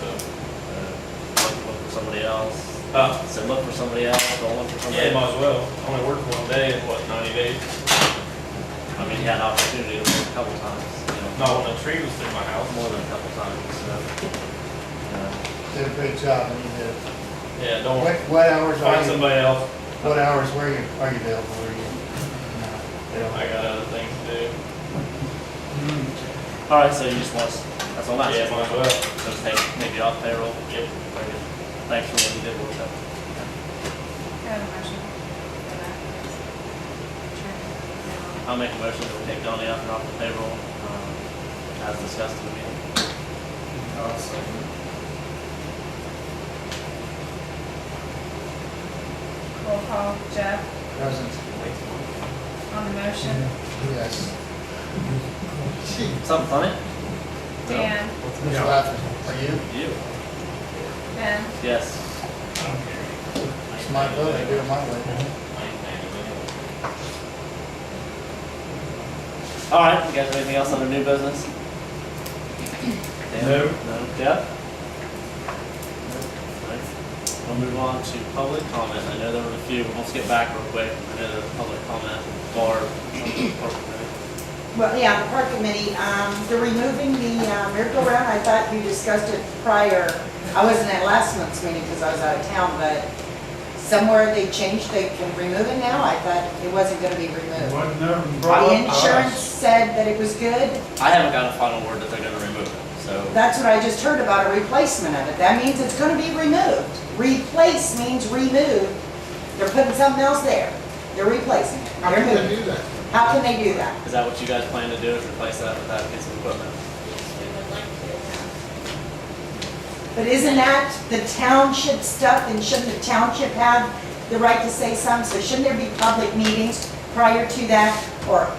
uh, somebody else. Uh, I said, look for somebody else, don't look for somebody yeah, else. might as well. I Only worked one day in what, ninety days? I mean, he had an opportunity to look a couple times, you know, Not when a tree was through my house. more than a couple times, so. uh, you know. Did a great job, and you did. Yeah, Oh. don't What, worry. what hours Find are you, somebody else. what hours were you, are you available, were you? No, they don't. I got other things to do. All right, so you just want, us- that's all that's. Yeah, might as well. So just take, maybe off payroll. Yep. Very good. Thanks for what you did, uh, work up. Got a motion for that? Sure. I'll make a motion that we take Donnie up and off the payroll, um, as discussed in the meeting. Roll call, Jeff, Present, on the motion, yes. Something funny? Mm-hmm. Dan, Who's laughing? Are you? You? Ben, Yes. I don't care. It's my vote, I do it my way. I ain't mad at anyone. All right, you guys have anything else under new business? Dan? No. No, Jeff? No. All right. We'll move on to public comment. I know there were a few, but let's get back real quick. I know there was public comment, Barb, something important. Well, yeah, the park committee, um, they're removing the uh, merry-go-round, I thought you discussed it prior. I wasn't at last month's meeting because I was out of town, but somewhere they changed, they can remove it now, I thought it wasn't gonna be removed. The insurance said that it was good, I haven't got a final word that they're gonna remove it, so. that's what I just heard about, a replacement of it, that means it's gonna be removed. Replace means remove, they're putting something else there, they're replacing it. How can They're they moving. do that? How can they do that? Is that what you guys plan to do, is replace that with that piece of equipment? But isn't that the township stuff, and shouldn't the township have the right to say some? So shouldn't there be public meetings prior to that, or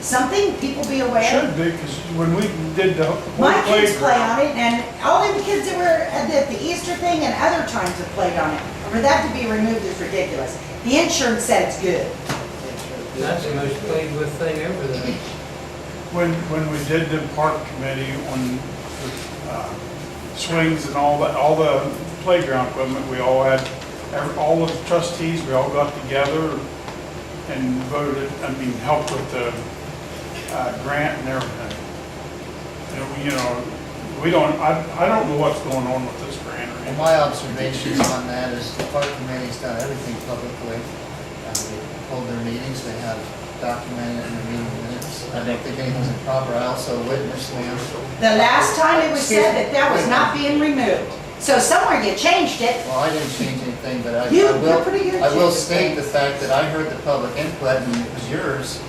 something people be aware? Should be, because when we did the. My kids play playground, on it, and all the kids that were at the- the Easter thing and other times have played on it. And For that to be removed is ridiculous. The insurance said it's good. That's the most played with thing ever, though. When, when we did the park committee on the uh, swings and all that, all the playground equipment, we all had, every- all of the trustees, we all got together and voted, I mean, helped with the uh, grant and everything. And, we, you know, we don't, I, I don't know what's going on with this grant or Well, anything. my observations on that is the park committee's done everything publicly. Uh, They Hold their meetings, they have documented in their meeting minutes. I don't think anything's improper, I also witnessed them. The last time it was said that that was not being removed. So somewhere you changed it, Well, I didn't change anything, but I I You- you're pretty will, good I will at state changing the fact that I heard the public input and it was yours.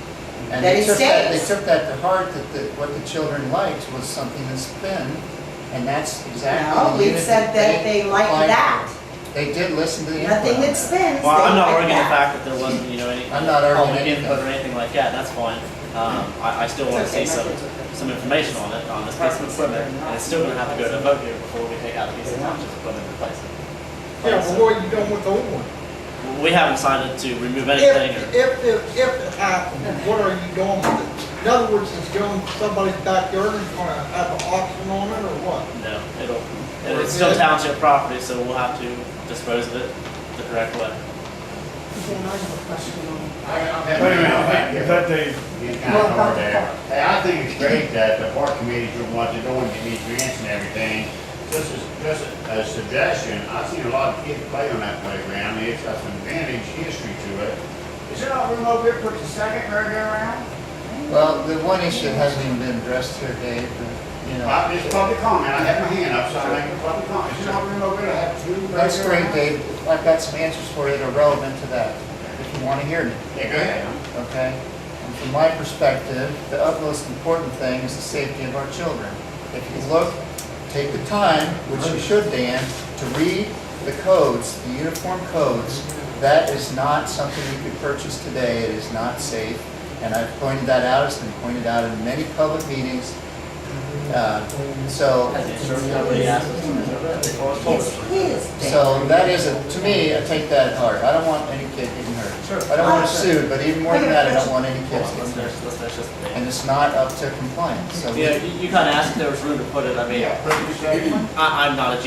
And That they it took that, they stays. took that to heart, that the- what the children liked was something that's thin. And that's exactly no, the we unit said that they like applied that. for. They did listen to the input. Nothing on that that. spins. Well, I'm they not like arguing the that. fact that there wasn't, you know, any. I'm not arguing public anything. Input or anything like that, that's fine. Um, I, I still It's wanna okay, see some, Mike, it's okay. some information on it, on this piece of equipment, and it's still gonna have to go to a vote here before we take out a piece of township equipment and replace it. Yeah, but what are you doing with the old one? We haven't decided to remove anything or, If, if, if, if it happened, what are you doing with it? In other words, it's going to somebody's backyard and gonna have an auction on it or what? no, it'll, it'll- it's still township property, so we'll have to dispose of it the correct way. Dan, I have a question on, Wait a minute, that they, Well, about the park. Hey, I think it's great that the park committee's doing what they're doing, getting these grants and everything. Just as, just a suggestion, I've seen a lot of kids play on that playground, it's got some vintage history to it. Is there not room over here for the second merry-go-round? Well, the one issue that hasn't even been addressed here, Dave, but, you know, Uh, it's public comment, I have my hand up, so I'm making public comment. Is there not room over here to have two merry-go-rounds? that's great, Dave. I've got some answers for you that are relevant to that, if you want to hear them, Yeah, go ahead. okay? And from my perspective, the utmost important thing is the safety of our children. If you look, take the time, which you should, Dan, to read the codes, the uniform codes. That is not something you could purchase today. It is not safe. And I've pointed that out, it's been pointed out in many public meetings. Uh, So, Has the insurance company asked us to remove it? They told us to. It's his thing. So that is, a- to me, I take that hard. I don't want any kid getting hurt. I don't want to sue, but even more than that, I don't want any Hold kids on, getting Let's hurt. finish, let's finish this debate. And it's not up to compliance, so. we- Yeah, you, you kinda asked if there was room to put it, I mean, Yeah, perfect statement. I, I'm not a genius